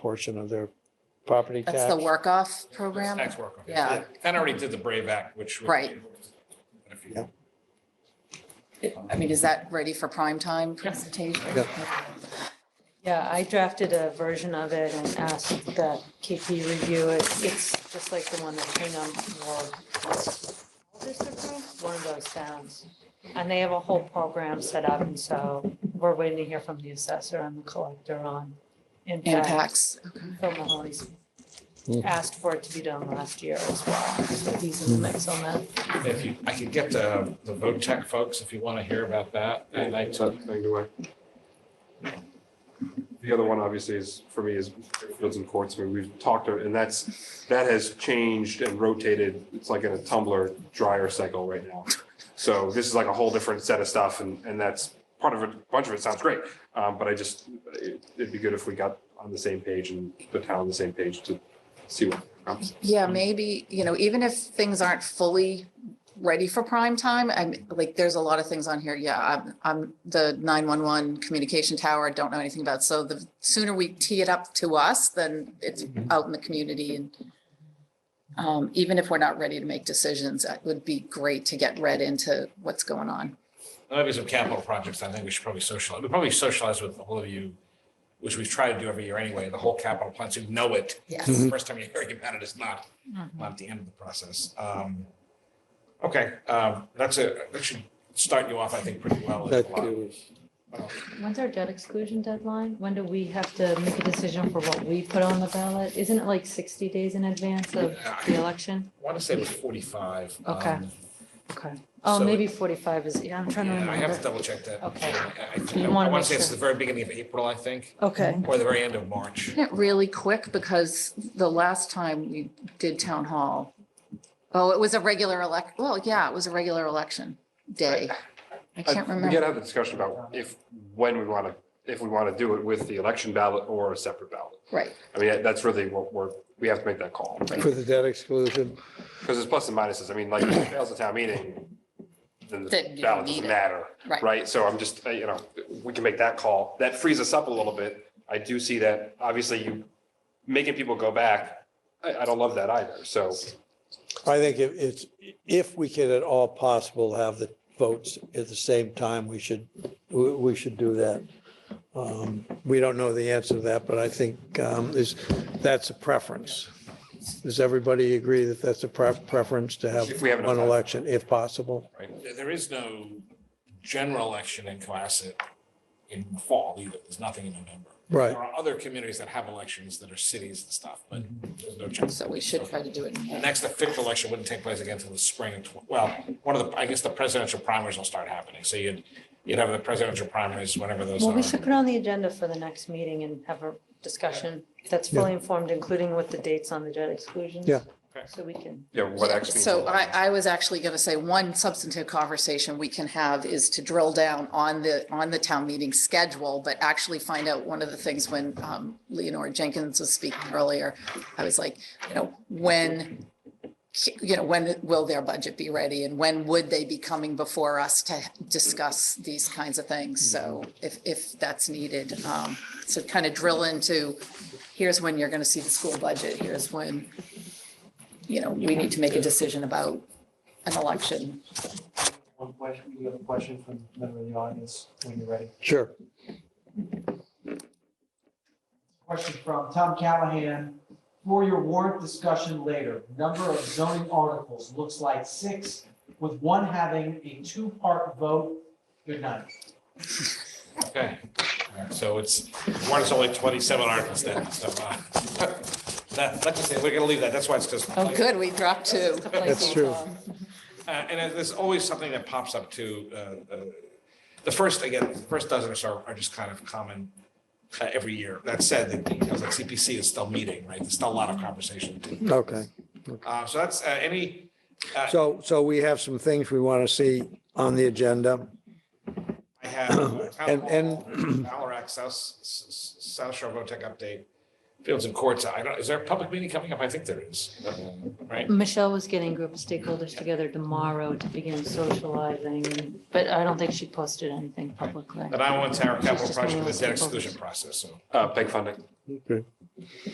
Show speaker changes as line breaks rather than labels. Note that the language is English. portion of their property tax.
That's the work off program?
Tax work. okay.
Yeah.
Kind of already did the Brave Act, which. would-
Right.
If
Yeah.
you-
I mean, is that ready for prime time presentation?
Yeah, I drafted a version of it and asked that KP review it. It's just like the one that Hingham or one of those towns. And they have a whole program set up, and so we're waiting to hear from the assessor and the collector on impact.
Impacts,
Phil Mahoney's
Hmm.
asked for it to be done last year as well, so he's in the mix on that.
If you, I could get the, the vote tech folks, if you want to hear about that. And I,
That thing away. The other one obviously is, for me, is fields and courts. I mean, we've talked, to- and that's, that has changed and rotated. It's like in a tumbler dryer cycle right now. So this is like a whole different set of stuff and, and that's part of it, a bunch of it sounds great. Um, but I just, it- it'd be good if we got on the same page and the town on the same page to see what comes.
yeah, maybe, you know, even if things aren't fully ready for prime time, I'm, like, there's a lot of things on here, yeah, I'm, I'm the nine-one-one communication tower, I don't know anything about, so the sooner we tee it up to us, then it's out in the community and um, even if we're not ready to make decisions, it would be great to get read into what's going on.
there'll be some capital projects. I think we should probably socialize, we probably socialize with all of you, which we've tried to do every year anyway, the whole capital plan, so you know it.
Yes. Mm-hmm.
First time you're hearing about it is not, not the end of the process. Um, Okay, um, that's a, that should start you off, I think, pretty well. There's
That
a lot.
is-
When's our debt exclusion deadline? When do we have to make a decision for what we put on the ballot? Isn't it like sixty days in advance of the election?
I want to say it was 45.
Okay.
um,
Okay. Oh,
So-
maybe forty-five is, yeah, I'm trying to
Yeah, I have to
remember.
double check that.
Okay.
I-
You
I
wanna
want
make
to say it's
sure.
the very beginning of April, I think,
Okay,
or the very end of March.
Isn't it really quick? Because the last time we did town hall, oh, it was a regular elec, well, yeah, it was a regular election day. I can't
I- We gotta
remember.
have the discussion about if, when we want to, if we want to do it with the election ballot or a separate ballot.
Right.
I mean, that's really what we're, we have to make that call.
For the debt exclusion,
Because it's plus and minuses. I mean, like, if it fails the town meeting, then
Then you
the
don't
ballot
need
doesn't
it.
matter.
Right.
Right? So I'm just, uh, you know, we can make that call. That frees us up a little bit. I do see that, obviously, you making people go back. I, I don't love that either. So
I think if it's, if we can at all possible have the votes at the same time, we should, we we should do that. Um, We don't know the answer to that, but I think um, is, that's a preference. Does everybody agree that that's a pref- preference to have
If we have enough
one
time.
election, if possible?
There- There is no general election in Cohasset in fall either. There's nothing in November.
Right.
There are other communities that have elections that are cities and stuff, but
Mm-hmm.
there's no chance.
So we should try to do it. in
The
May.
next official election wouldn't take place again until the spring. of tw- Well, one of the, I guess the presidential primaries will start happening. So you'd, you'd have the presidential primaries whenever those
well, we
are.
should put on the agenda for the next meeting and have a discussion that's fully informed, including with the dates on the debt exclusions.
Yeah.
Okay.
So we can,
Yeah, what X means.
So I, I was actually going to say one substantive conversation we can have is to drill down on the, on the town meeting schedule, but actually find out one of the things when um, Leonora Jenkins was speaking earlier, I was like, you know, when, you know, when will their budget be ready and when would they be coming before us to discuss these kinds of things? So if, if that's needed, um, so kind of drill into, here's when you're going to see the school budget, here's when, you know, we need to make a decision about an election.
One question, you have a question from a member of the audience when you're ready.
Sure.
Question from Tom Callahan. For your warrant discussion later, number of zoning articles looks like six, with one having a two-part vote. Good night.
Okay. All right, So it's, one is only 27 articles then, so. uh, that- Let's just say, we're gonna leave that. That's why it's just.
Oh, good, we dropped two.
That's true.
Uh, And there's always something that pops up too. uh, uh, The first, again, the first dozen or so are just kind of common uh, every year. That said, it- because like CPC is still meeting, right? There's still a lot of conversation.
Okay.
Uh, So that's uh, any,
So, so we have some things we want to see on the agenda.
I have. uh, town
And- and-
hall, Ballarat, South, S- S- South Shore VOTEC update, Fields and Courts. I don't, is there a public meeting coming up? I think there is,
Uh-huh.
right?
Michelle was getting a group of stakeholders together tomorrow to begin socializing, but I don't think she posted anything publicly.
And I want to our
She's
capital
just gonna
project with
list
the debt
the books.
exclusion process, so.
Uh, PEG funding.